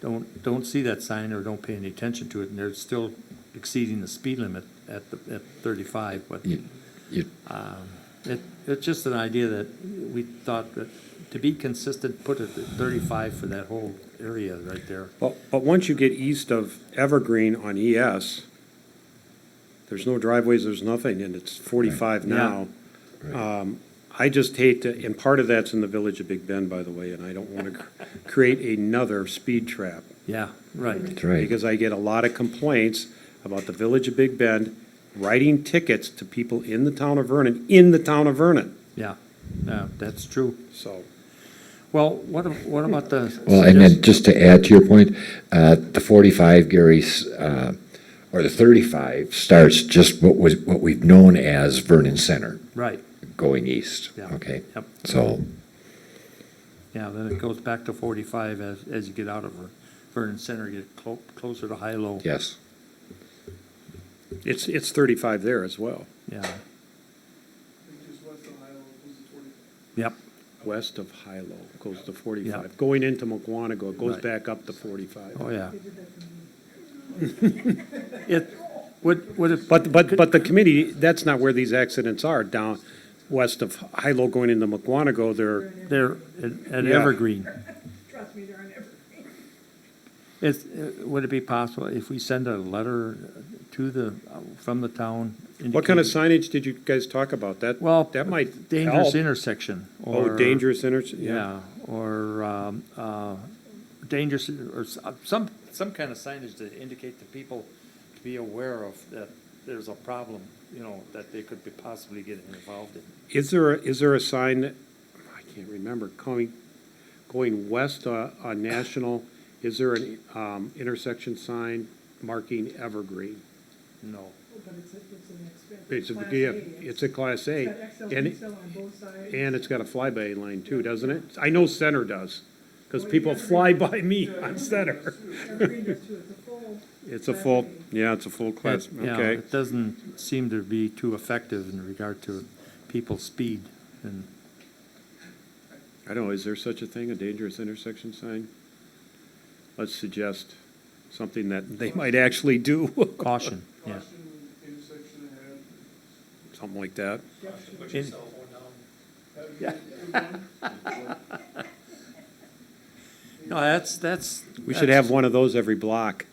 don't, don't see that sign or don't pay any attention to it, and they're still exceeding the speed limit at, the at 35, but um, You, you, it, it's just an idea that we thought that, to be consistent, put it at 35 for that whole area right there. But, but once you get east of Evergreen on ES, there's no driveways, there's nothing, and it's forty-five Right. now. Um, right. I just hate to, and part of that's in the village of Big Bend, by the way, and I don't want to create another speed trap. Yeah, right. That's right. Because I get a lot of complaints about the village of Big Bend writing tickets to people in the town of Vernon, in the town of Vernon, Yeah, yeah, that's true. so. Well, what, ab- what about the? Well, and then suggestion- just to add to your point, uh, the forty-five, Gary's, uh, or the thirty-five starts just what was, what we've known as Vernon Center Right, going east, Yeah. okay? Yep. So, yeah, then it goes back to 45 as, as you get out of Ver- Vernon Center, get clo- closer to high-low. yes, It's, it's thirty-five there as well, Yeah, Which is west Ohio, goes to 40. yep, west of Hilo, goes to Yeah. forty-five. Going into McWanago, it goes Right. back up to forty-five. oh, yeah. It, would, would it? But, but, but the committee, that's not where these accidents are, down west of Hilo going into McWanago, they're, There, at at Yeah. Evergreen. Trust me, they're on everything. It's, uh, would it be possible if we send a letter to the, from the town? what kind of indicating- signage did you guys talk about? That, Well, that might Dangerous help. intersection. Oh, or- dangerous intersection, yeah. Yeah, or, um, uh, dangerous, or s- uh, some, some kind of signage to indicate to people to be aware of that there's a problem, you know, that they could be possibly getting involved in. Is there, a- is there a sign, that- I can't remember, going, going west uh, on National, is there an um, intersection sign marking Evergreen? No. But it's, a- it's an expensive. It's a, Class yeah, A, it's a Class A. It's got XL, and it- XL on both sides. And it's got a flyby lane too, doesn't it? I know Center does, because people fly by me on Center. Evergreen does too, it's a full. It's a full, yeah, it's a full class, It- yeah, okay. It doesn't seem to be too effective in regard to people's speed and I don't know, is there such a thing, a dangerous intersection sign? Let's suggest something that they might actually do, caution, yeah. Caution, intersection ahead. something like that. Put In- phone down. No, that's, that's. We should that's- have one of those every block.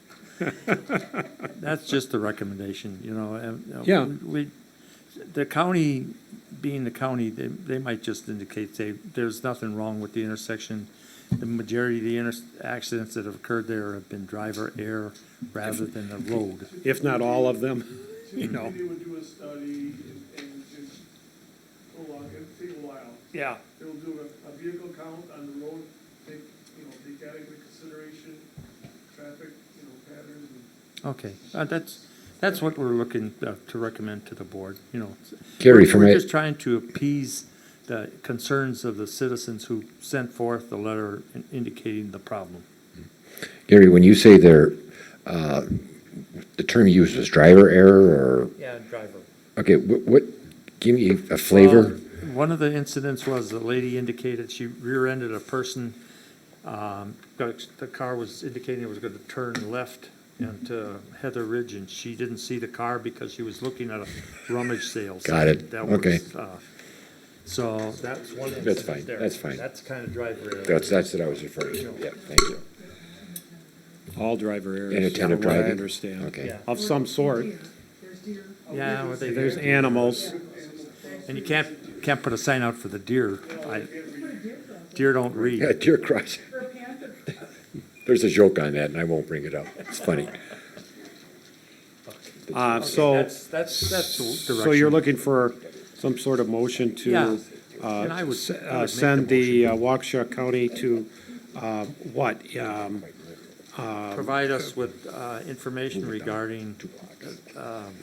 That's just the recommendation, you know, and. uh, Yeah. We, the county, being the county, they, they might just indicate they, there's nothing wrong with the intersection. The majority of the inter, accidents that have occurred there have been driver error rather than a road. If not all of them, you know. They would do a study and, and just go along, it'll take a while. Yeah. They'll do a, a vehicle count on the road, take, you know, take adequate consideration, traffic, you know, patterns and Okay, uh, that's, that's what we're looking uh, to recommend to the board, you know. Gary, We're- from We're a- just trying to appease the concerns of the citizens who sent forth the letter in- indicating the problem. Gary, when you say there, uh, the term you used was driver error or, Yeah, driver. okay, what, what, give me a flavor? Well, One of the incidents was the lady indicated she rear-ended a person. um, but The car was indicating it was going to turn left into Heather Ridge, and she didn't see the car because she was looking at a rummage sale. Got it. That was, Okay. uh, So that's one incident That's fine. there. That's fine. That's kind of driver error. That's, that's what I was referring to, yeah, thank you. All driver errors. Inattentive from what I driving. understand. Okay, Yeah. Of some sort. Deer. There's deer. Yeah, well, they- There's animals. and you can't, can't put a sign out for the deer. I- Put a deer crossing. Deer don't yeah, read. dear Christ, Or a panther. there's a joke on that and I won't bring it up, it's funny. Uh, so, That's, that's, that's the direction. so you're looking for some sort of motion Yeah. to And I would- s- I would uh, make the send the uh, Waukesha County to, uh, what? um, provide us with uh, information regarding um,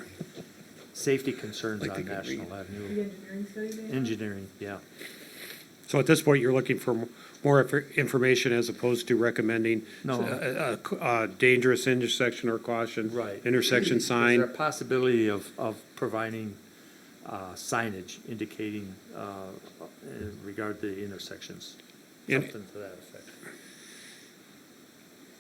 safety concerns on National The Avenue. engineering study they have. Engineering, yeah. So at this point, you're looking for m- more infor- information as opposed to recommending No. a- a- a dangerous intersection or caution. Right. Intersection Is there a sign. possibility of, of providing uh, signage indicating uh, in regard to the intersections? And- Something to that effect.